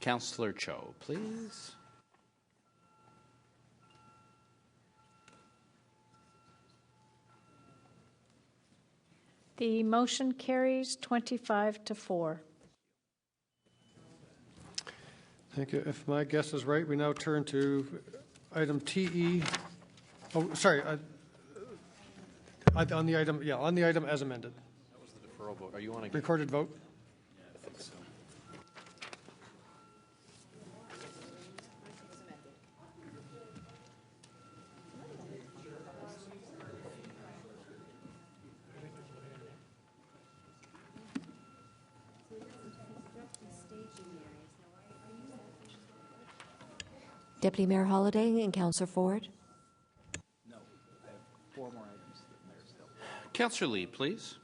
Counselor Cho, please. The motion carries 25 to 4. Thank you. If my guess is right, we now turn to item TE, oh, sorry, I- I- on the item, yeah, on the item as amended. Deferral vote. Are you on again? Recorded vote? Deputy Mayor Holliday and Councillor Ford. Counselor Lee, please.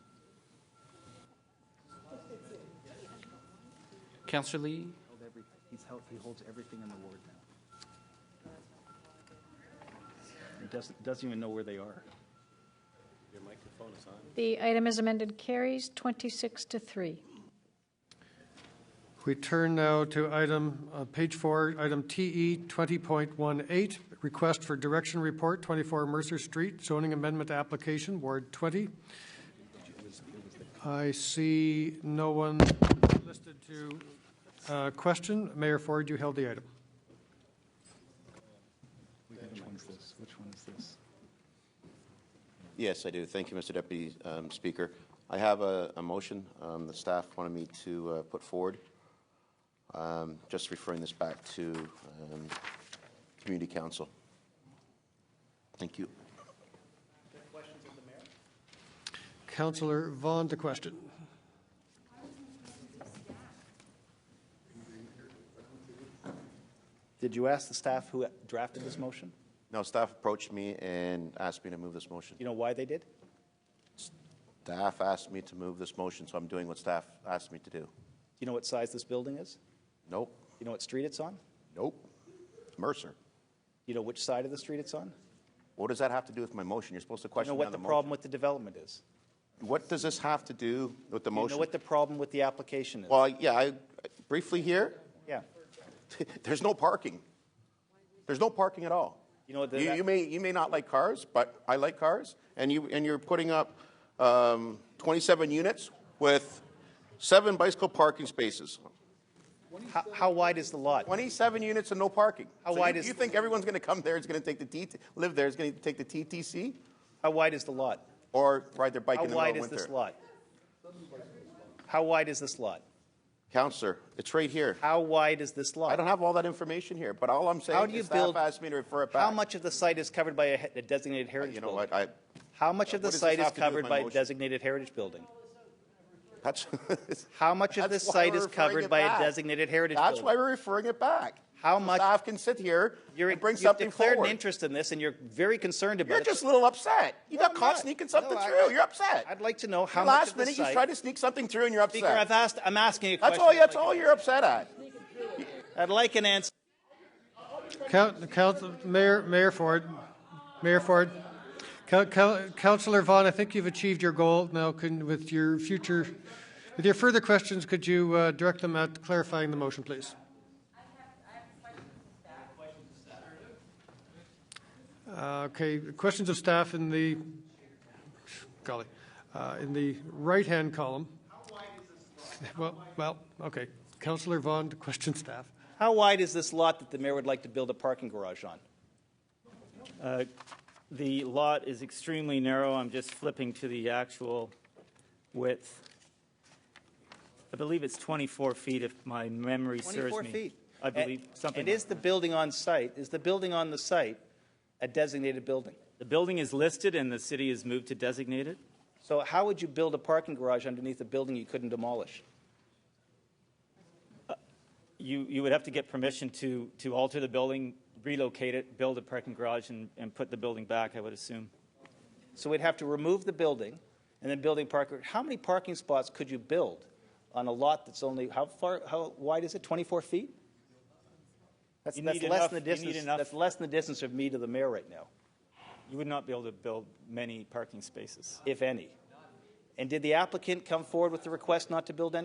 Counselor Lee, held every, he's held, he holds everything in the ward now. He doesn't, doesn't even know where they are. The item as amended carries 26 to 3. We turn now to item, uh, page four, item E TE 20.18, request for direction report, 24 Mercer Street, zoning amendment application, Ward 20. I see no one listed to uh, question. Mayor Ford, you held the item. Which one's this? Which one is this? Yes, I do. Thank you, Mr. Deputy um, Speaker. I have a, a motion um, the staff wanted me to uh, put forward. Um, Just referring this back to um, Community Council. Thank you. Councillor Vaughn to question. Did you ask the staff who drafted this motion? Now, staff approached me and asked me to move this motion. You know why they did? Staff asked me to move this motion, so I'm doing what staff asked me to do. You know what size this building is? Nope, You know what street it's on? nope. Mercer. You know which side of the street it's on? What does that have to do with my motion? You're supposed to You know question me what on the the problem motion. with the development is? What does this have to do with the You know motion? what the problem with the application is? Well, yeah, I briefly here, Yeah. There's no parking. There's no parking at all. You know what the- you, you may you may not like cars, but I like cars, and you and you're putting up um, 27 units with seven bicycle parking spaces. How, how wide is the lot? 27 units and no parking. How so wide you, is- you think everyone's going to come there? Is going to take the TT, live there? Is going to take the TTC How wide is the lot? or ride their bike How in the middle wide of is winter? this lot? How wide is this lot? Counselor, it's right here. How wide is this lot? I don't have all that information here, but all I'm saying How do you is staff build- asked me to refer it back. How much of the site is covered by a he- a designated heritage Uh, You know building? what? I, How much of the What does this site is have to do with covered my by a motion? designated heritage building? that's. How much of this That's why site we're is referring covered it by a back. designated heritage That's building? why we're referring it back. How So much- Staff can sit here You're, and bring you've something declared forward. an interest in this, and you're very concerned about You're it. just a little upset. You No, got I'm caught not. sneaking something No, I- through. You're upset. I'd like to know how Your much last of this minute you site- tried to sneak something through and you're upset. Speaker, I've asked, I'm asking a that's question. all. That's all you're upset at. I'd like an answer. Count, count, Mayor, Mayor Ford, Mayor Ford, Coun- Coun- Councillor Vaughn, I think you've achieved your goal. Now, can, with your future, with your further questions, could you uh, direct them at clarifying the motion, please? Uh, Okay, questions of staff in the, golly, uh, in the right-hand column. Well, well, okay. Councillor Vaughn to question staff. How wide is this lot that the mayor would like to build a parking garage on? The lot is extremely narrow. I'm just flipping to the actual width. I believe it's 24 feet if my memory serves 24 me. feet. I believe And- something And is like the building on site, is the building on the site a designated building? that. The building is listed and the city has moved to designate it. So how would you build a parking garage underneath a building you couldn't demolish? You, you would have to get permission to, to alter the building, relocate it, build a parking garage and, and put the building back, I would assume. So we'd have to remove the building and then building parking. How many parking spots could you build on a lot that's only, how far, how wide is it, 24 feet? That's, You that's need less enough- than the you need distance, enough- that's less than the distance of me to the mayor right now, You would not be able to build many parking spaces. if any. And did the applicant come forward with the request not to build any?